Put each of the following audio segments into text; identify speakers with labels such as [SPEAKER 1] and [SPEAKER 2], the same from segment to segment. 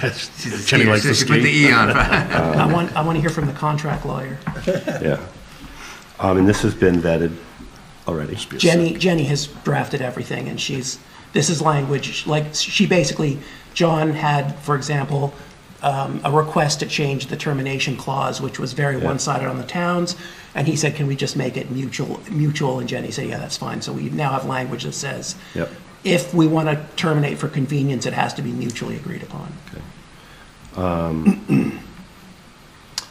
[SPEAKER 1] That's, Kenny likes to
[SPEAKER 2] You should Put the
[SPEAKER 1] ski.
[SPEAKER 2] E on.
[SPEAKER 3] I want, I want to hear from the contract lawyer.
[SPEAKER 4] Yeah. Um, and this has been vetted already.
[SPEAKER 3] Jenny, Jenny has drafted everything, and she's, this is language, like, she basically, John had, for example, um, a request to change the termination clause, which was very one-sided on the towns, and he said, can we just make it mutual, mutual, and Jenny said, yeah, that's fine, so we now have language that says,
[SPEAKER 4] Yep.
[SPEAKER 3] if we want to terminate for convenience, it has to be mutually agreed upon.
[SPEAKER 4] Um,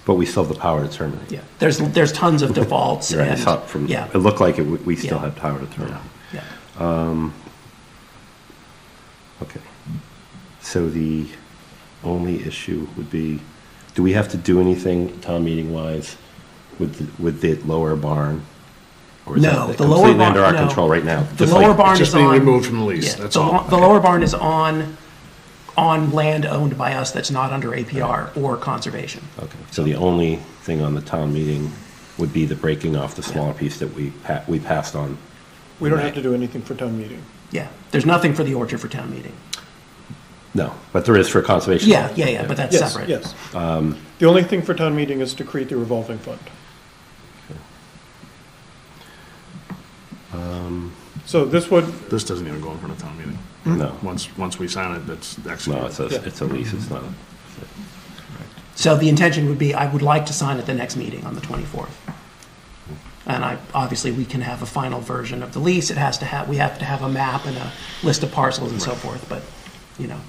[SPEAKER 4] But we still have the power to terminate.
[SPEAKER 3] Yeah, there's, there's tons of defaults,
[SPEAKER 4] Right,
[SPEAKER 3] and,
[SPEAKER 4] it's up from,
[SPEAKER 3] yeah,
[SPEAKER 4] it looked like it, w- we still
[SPEAKER 3] Yeah.
[SPEAKER 4] had power to terminate.
[SPEAKER 3] yeah.
[SPEAKER 4] Okay. So the only issue would be, do we have to do anything town meeting wise with, the- with the lower barn? Or is
[SPEAKER 3] No,
[SPEAKER 4] that
[SPEAKER 3] the lower barn.
[SPEAKER 4] Completely under our
[SPEAKER 3] no.
[SPEAKER 4] control right now?
[SPEAKER 3] The
[SPEAKER 4] just like-
[SPEAKER 3] lower barn
[SPEAKER 1] just
[SPEAKER 3] is on.
[SPEAKER 1] being removed from the lease,
[SPEAKER 3] yeah,
[SPEAKER 1] that's
[SPEAKER 3] the
[SPEAKER 1] all.
[SPEAKER 3] lo- The lower barn is on, on land owned by us that's not under APR or conservation.
[SPEAKER 4] Okay, so the only thing on the town meeting would be the breaking off the smaller piece that we, pa- we passed on.
[SPEAKER 5] We don't have to do anything for town meeting.
[SPEAKER 3] Yeah, there's nothing for the orchard for town meeting.
[SPEAKER 4] No, but there is for conservation.
[SPEAKER 3] Yeah, yeah, yeah, but that's
[SPEAKER 5] Yes,
[SPEAKER 3] separate.
[SPEAKER 5] yes.
[SPEAKER 1] Um,
[SPEAKER 5] Um, The only thing for town meeting is to create the revolving fund.
[SPEAKER 1] Um,
[SPEAKER 5] So this would,
[SPEAKER 1] This doesn't even go in front of town meeting.
[SPEAKER 4] No,
[SPEAKER 1] Once, once we sign it, that's
[SPEAKER 4] no,
[SPEAKER 1] executed.
[SPEAKER 4] it's a, it's a lease, it's not,
[SPEAKER 3] So the intention would be, I would like to sign at the next meeting on the 24th. And I, obviously, we can have a final version of the lease. It has to have, we have to have a map and a list of parcels and so forth, but, you know,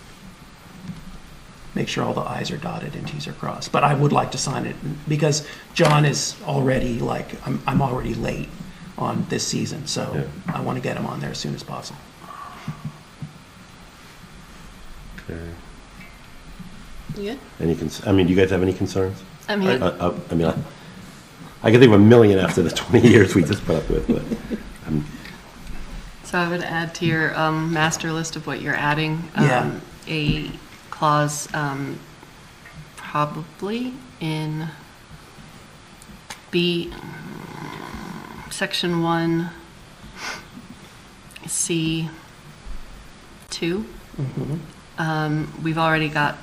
[SPEAKER 3] make sure all the i's are dotted and t's are crossed. But I would like to sign it because John is already like, I'm, I'm already late on this season, so
[SPEAKER 4] Yeah.
[SPEAKER 3] I want to get him on there as soon as possible.
[SPEAKER 6] You good?
[SPEAKER 4] any, cons- I mean, do you guys have any concerns?
[SPEAKER 6] I
[SPEAKER 4] Uh,
[SPEAKER 6] mean,
[SPEAKER 4] uh, I mean, I I can think of a million after the 20 years we just put up with, but
[SPEAKER 6] so I would add to your um, master list of what you're adding.
[SPEAKER 3] Yeah.
[SPEAKER 6] um, A clause, um, probably in B, um, section one, C two. Um, We've already got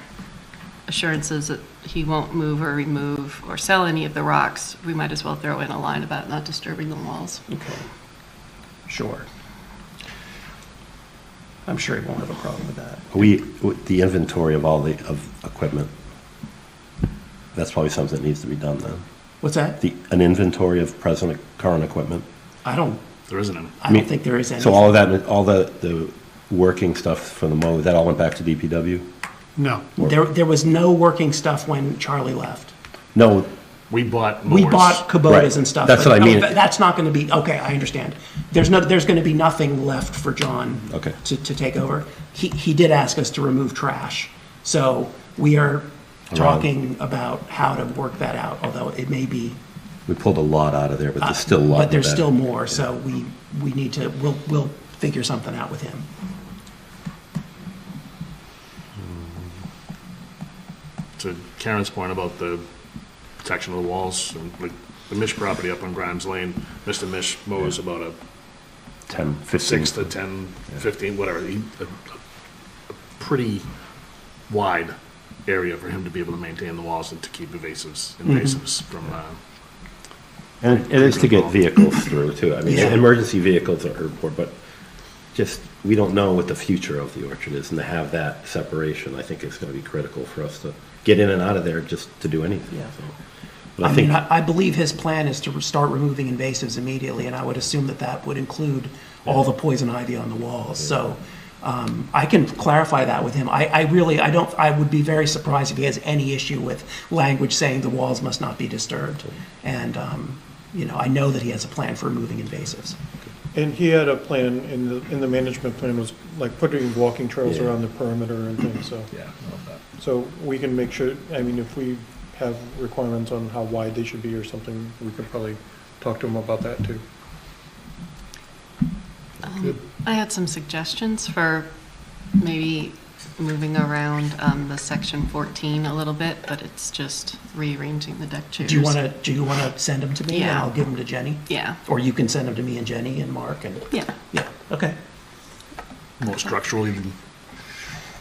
[SPEAKER 6] assurances that he won't move or remove or sell any of the rocks. We might as well throw in a line about not disturbing the walls.
[SPEAKER 3] Okay. Sure. I'm sure he won't have a problem with that.
[SPEAKER 4] we, with the inventory of all the, of equipment, that's probably something that needs to be done then.
[SPEAKER 3] What's that?
[SPEAKER 4] The, an inventory of present, current equipment.
[SPEAKER 3] I don't,
[SPEAKER 1] There isn't any.
[SPEAKER 3] I don't think there is any.
[SPEAKER 4] So all of that, all the, the working stuff from the mow, that all went back to DPW?
[SPEAKER 1] No,
[SPEAKER 3] There, there was no working stuff when Charlie left.
[SPEAKER 4] No,
[SPEAKER 1] we bought mowers.
[SPEAKER 3] We bought Kubotas
[SPEAKER 4] Right.
[SPEAKER 3] and stuff.
[SPEAKER 4] That's
[SPEAKER 3] but
[SPEAKER 4] what I
[SPEAKER 3] no,
[SPEAKER 4] mean.
[SPEAKER 3] but That's not gonna be, okay, I understand. There's no, there's gonna be nothing left for John.
[SPEAKER 4] Okay.
[SPEAKER 3] To, to take over. He, he did ask us to remove trash, so we are talking about how to work that out, although it may be.
[SPEAKER 4] we pulled a lot out of there, but there's still a lot.
[SPEAKER 3] Uh, But there's
[SPEAKER 4] in the
[SPEAKER 3] still
[SPEAKER 4] back.
[SPEAKER 3] more, so we, we need to, we'll, we'll figure something out with him.
[SPEAKER 1] To Karen's point about the protection of the walls, and like the Mish property up on Grimes Lane, Mr. Mish mows about a
[SPEAKER 4] 10, 15.
[SPEAKER 1] six to 10, 15, whatever, he- a, a pretty wide area for him to be able to maintain the walls and to keep evasives, invasives from, uh,
[SPEAKER 4] And it- it is to get vehicles through too. I mean,
[SPEAKER 3] Yeah.
[SPEAKER 4] emergency vehicles are important, but just, we don't know what the future of the orchard is. And to have that separation, I think is going to be critical for us to get in and out of there just to do anything.
[SPEAKER 3] Yeah.
[SPEAKER 4] so. But
[SPEAKER 3] I
[SPEAKER 4] I think,
[SPEAKER 3] mean, I I believe his plan is to start removing invasives immediately, and I would assume that that would include all the poison ivy on the walls. So um, I can clarify that with him. I, I really, I don't, I would be very surprised if he has any issue with language saying the walls must not be disturbed. And, um, you know, I know that he has a plan for removing invasives.
[SPEAKER 5] and he had a plan, in the, in the management plan was like putting walking trails
[SPEAKER 4] Yeah.
[SPEAKER 5] around the perimeter and things, so.
[SPEAKER 1] yeah, I love that.
[SPEAKER 5] So we can make sure, I mean, if we have requirements on how wide they should be or something, we could probably talk to him about that too.
[SPEAKER 6] I had some suggestions for maybe moving around um, the section 14 a little bit, but it's just rearranging the deck chairs.
[SPEAKER 3] Do you want to, do you want to send them to me? And
[SPEAKER 6] Yeah.
[SPEAKER 3] I'll give them to Jenny?
[SPEAKER 6] Yeah,
[SPEAKER 3] Or you can send them to me and Jenny and Mark and,
[SPEAKER 6] yeah.
[SPEAKER 3] yeah, okay.
[SPEAKER 1] More structurally